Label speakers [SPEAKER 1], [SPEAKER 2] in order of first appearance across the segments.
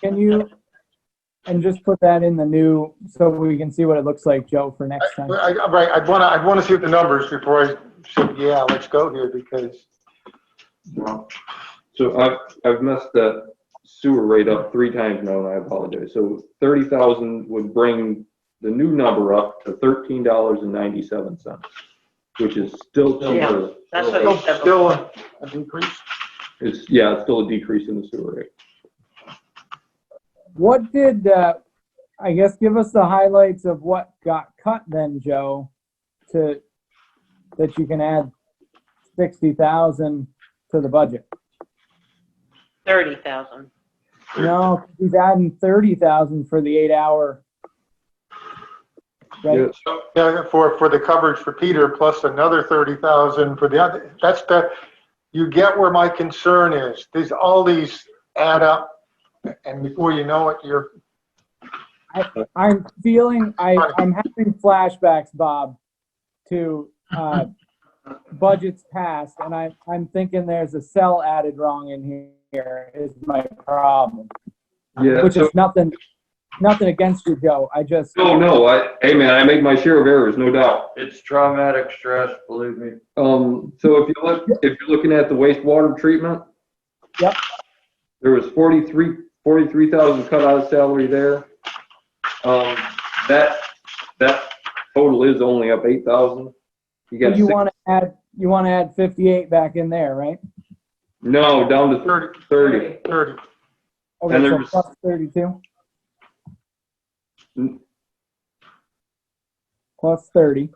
[SPEAKER 1] Can you, and just put that in the new, so we can see what it looks like, Joe, for next time.
[SPEAKER 2] Well, I, I- right, I'd want to, I'd want to see the numbers before I said, yeah, let's go here because,
[SPEAKER 3] So I've, I've messed that sewer rate up three times now, and I apologize. So thirty thousand would bring the new number up to thirteen dollars and ninety-seven cents, which is still cheaper.
[SPEAKER 4] that's what-
[SPEAKER 2] still, still a a decrease.
[SPEAKER 3] It's, yeah, it's still a decrease in the sewer rate.
[SPEAKER 1] What did, uh, I guess, give us the highlights of what got cut then, Joe, to, that you can add 60,000 to the budget?
[SPEAKER 4] Thirty thousand.
[SPEAKER 1] No, he's adding 30,000 for the eight-hour. Right,
[SPEAKER 3] Yeah,
[SPEAKER 2] Yeah, for, for the coverage for Peter, plus another thirty thousand for the other, that's the, you get where my concern is. These, all these add up, and before you know it, you're,
[SPEAKER 1] I'm feeling, I, I'm having flashbacks, Bob, to, uh, budgets past, and I, I'm thinking there's a cell added wrong in here is my problem.
[SPEAKER 3] Yeah,
[SPEAKER 1] Which
[SPEAKER 3] so,
[SPEAKER 1] is nothing, nothing against you, Joe. I just,
[SPEAKER 3] no, Oh, no, I, hey, man, I make my share of errors, no doubt.
[SPEAKER 5] It's traumatic stress, believe me.
[SPEAKER 3] Um, so if you look, if you're looking at the wastewater treatment.
[SPEAKER 1] Yep.
[SPEAKER 3] There was forty-three, forty-three thousand cut out of salary there. Um, that, that total is only up eight thousand. You got
[SPEAKER 1] you
[SPEAKER 3] six,
[SPEAKER 1] wanna add, you wanna add fifty-eight back in there, right?
[SPEAKER 3] no, down to
[SPEAKER 2] thirty,
[SPEAKER 3] thirty.
[SPEAKER 2] thirty.
[SPEAKER 1] Okay,
[SPEAKER 3] And there
[SPEAKER 1] so
[SPEAKER 3] was-
[SPEAKER 1] plus thirty-two?
[SPEAKER 3] Mm.
[SPEAKER 1] Plus thirty.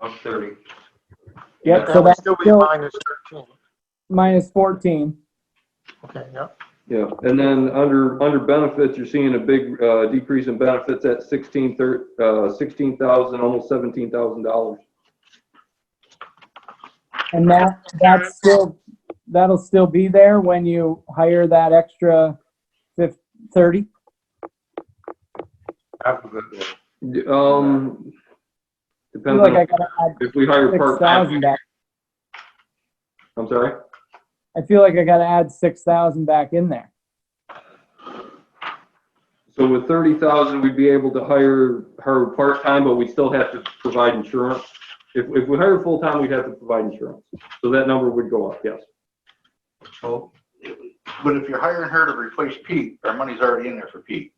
[SPEAKER 5] I'm thirty.
[SPEAKER 1] Yep, so
[SPEAKER 2] That would
[SPEAKER 1] that's
[SPEAKER 2] still be
[SPEAKER 1] still
[SPEAKER 2] minus thirteen.
[SPEAKER 1] minus fourteen.
[SPEAKER 2] Okay, yeah.
[SPEAKER 3] Yeah, and then under, under benefits, you're seeing a big, uh, decrease in benefits at sixteen thir, uh, sixteen thousand, almost seventeen thousand dollars.
[SPEAKER 1] And that, that's still, that'll still be there when you hire that extra fif- thirty?
[SPEAKER 5] Have a good one.
[SPEAKER 3] Um,
[SPEAKER 1] I feel
[SPEAKER 3] depends
[SPEAKER 1] Uh, like I
[SPEAKER 3] on
[SPEAKER 1] gotta add
[SPEAKER 3] if we hire
[SPEAKER 1] six
[SPEAKER 3] part-time.
[SPEAKER 1] thousand back.
[SPEAKER 3] I'm sorry?
[SPEAKER 1] I feel like I gotta add six thousand back in there.
[SPEAKER 3] So with thirty thousand, we'd be able to hire her part-time, but we still have to provide insurance. If, if we hire full-time, we'd have to provide insurance. So that number would go up, yes.
[SPEAKER 6] So, but if you're hiring her to replace Pete, our money's already in there for Pete.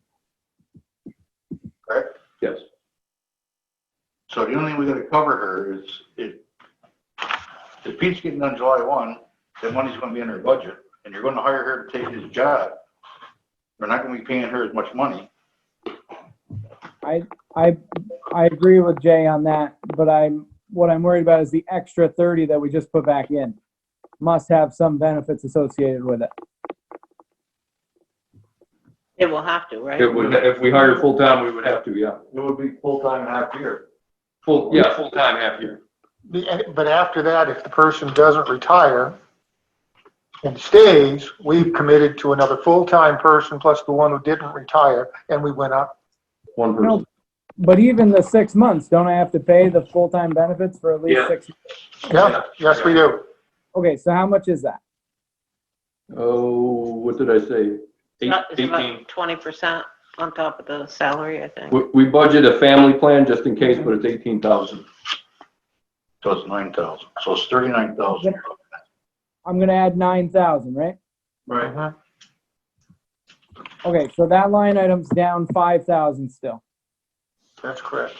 [SPEAKER 3] Yes.
[SPEAKER 6] So the only thing we gotta cover her is if, if Pete's getting done July one, then money's gonna be in her budget, and you're gonna hire her to take his job. We're not gonna be paying her as much money.
[SPEAKER 1] I, I agree with Jay on that, but I'm, what I'm worried about is the extra thirty that we just put back in. Must have some benefits associated with it.
[SPEAKER 4] It will have to, right?
[SPEAKER 3] It would, if we hire full-time, we would have to, yeah.
[SPEAKER 5] It would be full-time half year.
[SPEAKER 3] Full, yeah, full-time half year.
[SPEAKER 2] The- But after that, if the person doesn't retire and stays, we've committed to another full-time person plus the one who didn't retire, and we went up.
[SPEAKER 3] One
[SPEAKER 1] No,
[SPEAKER 3] person.
[SPEAKER 1] But even the six months, don't I have to pay the full-time benefits for at least
[SPEAKER 3] Yeah.
[SPEAKER 1] six?
[SPEAKER 2] Yeah, yes, we do.
[SPEAKER 1] Okay, so how much is that?
[SPEAKER 3] Oh, what did I say? Eight-
[SPEAKER 4] It's
[SPEAKER 3] Eighteen.
[SPEAKER 4] about twenty percent on top of the salary, I think.
[SPEAKER 3] We, we budget a family plan just in case, but it's eighteen thousand.
[SPEAKER 6] So it's nine thousand, so it's thirty-nine thousand.
[SPEAKER 1] I'm gonna add nine thousand, right?
[SPEAKER 5] Right.
[SPEAKER 2] Mhm.
[SPEAKER 1] Okay, so that line item's down five thousand still.
[SPEAKER 2] That's correct.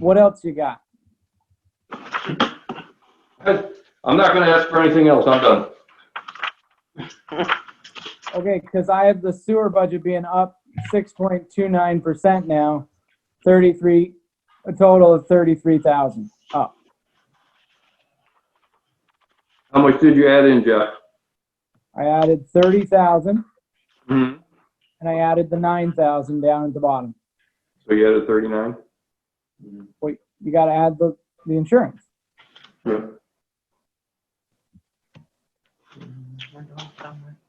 [SPEAKER 1] What else you got?
[SPEAKER 3] I'm not gonna ask for anything else, I'm done.
[SPEAKER 1] Okay, because I have the sewer budget being up six point two nine percent now, thirty-three, a total of thirty-three thousand up.
[SPEAKER 3] How much did you add in, Jack?
[SPEAKER 1] I added thirty thousand
[SPEAKER 3] Hmm.
[SPEAKER 1] and I added the nine thousand down at the bottom.
[SPEAKER 3] So you added thirty-nine?
[SPEAKER 1] Wait, you gotta add the, the insurance.
[SPEAKER 3] Yeah.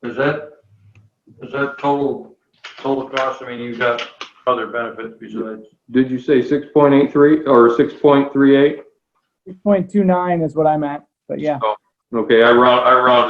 [SPEAKER 5] Is that, is that total, total cost? I mean, you've got other benefits besides.
[SPEAKER 3] Did you say six point eight three or six point three eight?
[SPEAKER 1] Six point two nine is what I'm at, but yeah.
[SPEAKER 3] Okay, I round, I rounded